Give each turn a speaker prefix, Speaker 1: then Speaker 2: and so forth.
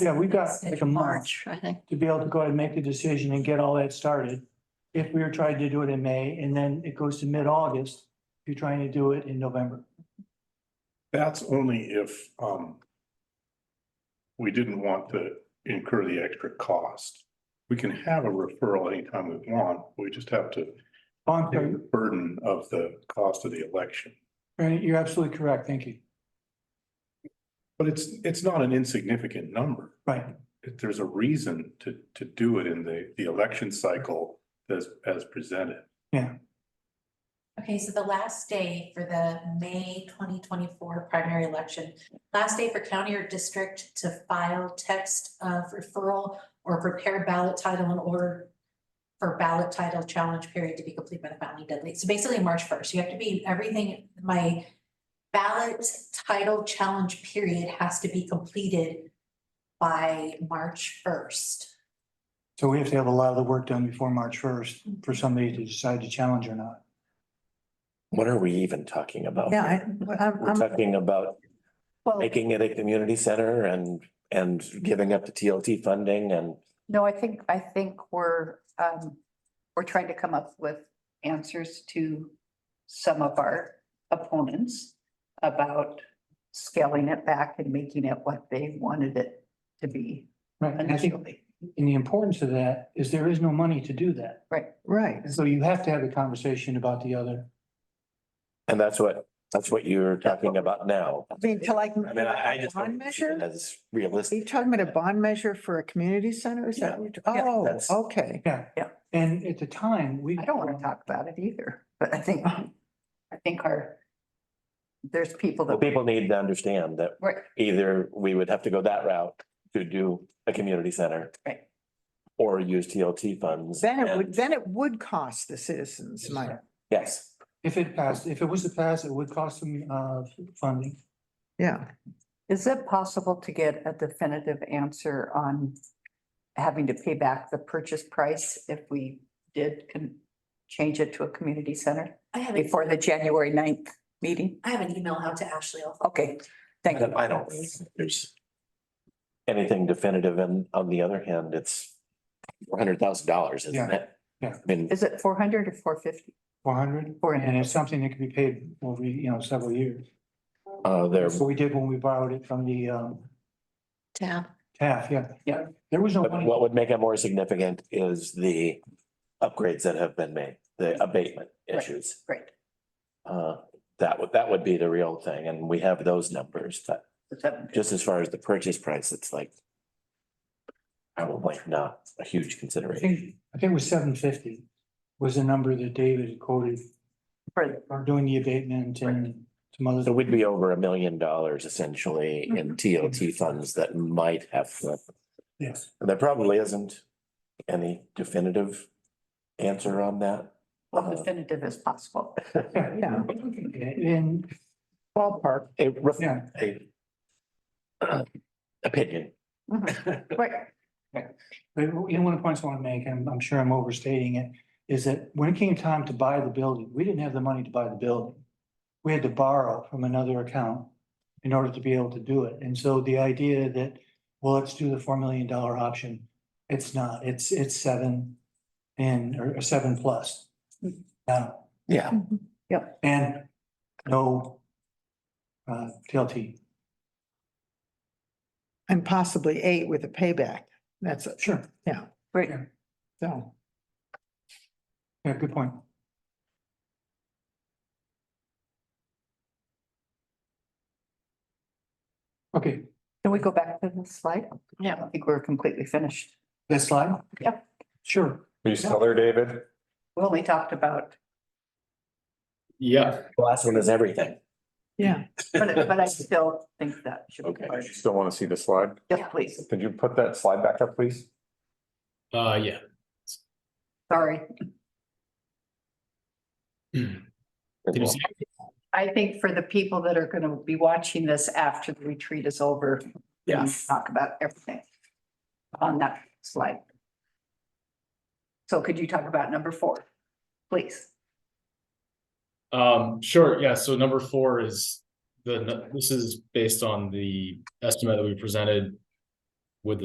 Speaker 1: Yeah, we've got like a month
Speaker 2: March, I think.
Speaker 1: to be able to go ahead and make the decision and get all that started. If we were trying to do it in May and then it goes to mid-August, if you're trying to do it in November.
Speaker 3: That's only if, um, we didn't want to incur the extra cost. We can have a referral anytime we want. We just have to
Speaker 1: Oh, I'm
Speaker 3: take
Speaker 1: sorry.
Speaker 3: the burden of the cost of the election.
Speaker 1: Right, you're absolutely correct. Thank you.
Speaker 3: But it's, it's not an insignificant number.
Speaker 1: Right.
Speaker 3: If There's a reason to, to do it in the, the election cycle as, as presented.
Speaker 4: Okay, so the last day for the May twenty twenty-four primary election, last day for county or district to file text of referral or prepare ballot title in order for ballot title challenge period to be complete by the following deadline. So basically, March first, you have to be, everything, my ballot title challenge period has to be completed by March first.
Speaker 1: So we have to have a lot of the work done before March first for somebody to decide to challenge or not.
Speaker 5: What are we even talking about?
Speaker 6: Yeah,
Speaker 5: here?
Speaker 6: I, I'm,
Speaker 5: We're
Speaker 6: I'm-
Speaker 5: talking about
Speaker 6: well,
Speaker 5: making it a community center and, and giving up the TLT funding and
Speaker 6: no, I think, I think we're, um, we're trying to come up with answers to some of our opponents about scaling it back and making it what they wanted it to be
Speaker 1: Right. And I think,
Speaker 6: initially.
Speaker 1: and the importance of that is there is no money to do that.
Speaker 6: Right.
Speaker 7: Right,
Speaker 1: So you have to have a conversation about the other.
Speaker 5: And that's what, that's what you're talking about now.
Speaker 7: I mean, to like.
Speaker 5: I mean, I, I just.
Speaker 7: Bond
Speaker 5: don't see it
Speaker 7: measure?
Speaker 5: As
Speaker 7: Are
Speaker 5: realistic.
Speaker 7: you talking about a bond measure for a community center? Is that, what-
Speaker 6: Yeah,
Speaker 7: oh,
Speaker 5: that's-
Speaker 7: okay.
Speaker 1: And at the time, we.
Speaker 6: I don't want to talk about it either, but I think, I think our, there's people
Speaker 5: Well,
Speaker 6: that.
Speaker 5: people need to understand that
Speaker 6: Right,
Speaker 5: either we would have to go that route to do a community center.
Speaker 6: Right.
Speaker 5: Or use TLT funds.
Speaker 7: Then it
Speaker 5: and-
Speaker 7: would, then it would cost the citizens money.
Speaker 5: Yes,
Speaker 1: If it passed, if it was to pass, it would cost some uh funding.
Speaker 7: Yeah,
Speaker 6: Is it possible to get a definitive answer on having to pay back the purchase price if we did con- change it to a community center
Speaker 4: I have, a-
Speaker 6: before the January ninth meeting?
Speaker 4: I have an email out to Ashley. I'll-
Speaker 6: Okay, thank you.
Speaker 5: I don't think there's anything definitive. And on the other hand, it's four hundred thousand dollars, isn't
Speaker 1: Yeah.
Speaker 5: it?
Speaker 1: Yeah.
Speaker 5: I mean,
Speaker 6: Is it four hundred or four fifty?
Speaker 1: Four hundred?
Speaker 6: Four
Speaker 1: And
Speaker 6: hundred.
Speaker 1: it's something that could be paid over, you know, several years.
Speaker 5: uh, there,
Speaker 1: That's what we did when we borrowed it from the um
Speaker 2: Tab.
Speaker 1: TAF, yeah. Yeah. There was no
Speaker 5: but
Speaker 1: money.
Speaker 5: what would make it more significant is the upgrades that have been made, the abatement
Speaker 6: Right.
Speaker 5: issues.
Speaker 6: Right,
Speaker 5: Uh, that would, that would be the real thing. And we have those numbers, but
Speaker 6: the seven fifty.
Speaker 5: just as far as the purchase price, it's like probably not a huge
Speaker 1: I
Speaker 5: consideration.
Speaker 1: think, I think it was seven fifty was the number that David had quoted
Speaker 6: For-
Speaker 1: for doing the abatement and some other.
Speaker 5: So we'd be over a million dollars essentially in TOT funds that might have flipped.
Speaker 1: Yes.
Speaker 5: There probably isn't any definitive answer on that.
Speaker 6: Well, definitive as possible.
Speaker 7: yeah.
Speaker 1: And
Speaker 5: Ballpark. A rough,
Speaker 1: Yeah.
Speaker 5: a opinion.
Speaker 6: Mm-hmm. Right,
Speaker 1: But you know, one of the points I want to make, and I'm sure I'm overstating it, is that when it came time to buy the building, we didn't have the money to buy the building. We had to borrow from another account in order to be able to do it. And so the idea that, well, let's do the four million dollar option, it's not, it's, it's seven and, or or seven plus. Now,
Speaker 5: Yeah.
Speaker 1: and no uh, TLT.
Speaker 7: And possibly eight with a payback. That's, it.
Speaker 1: Sure.
Speaker 6: right.
Speaker 7: so.
Speaker 1: Yeah, good point. Okay,
Speaker 6: Can we go back to the slide?
Speaker 2: Yeah.
Speaker 6: I don't think we're completely finished.
Speaker 1: this slide?
Speaker 6: Yep.
Speaker 1: Sure.
Speaker 8: Are you still there, David?
Speaker 6: We only talked about,
Speaker 8: Yeah.
Speaker 5: The Last one is everything.
Speaker 7: Yeah.
Speaker 6: but, but I still think that should be
Speaker 5: Okay.
Speaker 6: part of it.
Speaker 8: Still want to see the slide?
Speaker 6: Yes, please.
Speaker 8: Could you put that slide back up, please?
Speaker 9: Uh, yeah.
Speaker 6: Sorry.
Speaker 9: Did you see it?
Speaker 6: I think for the people that are gonna be watching this after the retreat is over. we
Speaker 5: Yeah.
Speaker 6: Talk about everything on that slide. So could you talk about number four, please?
Speaker 9: Um, sure, yeah, so number four is the, this is based on the estimate that we presented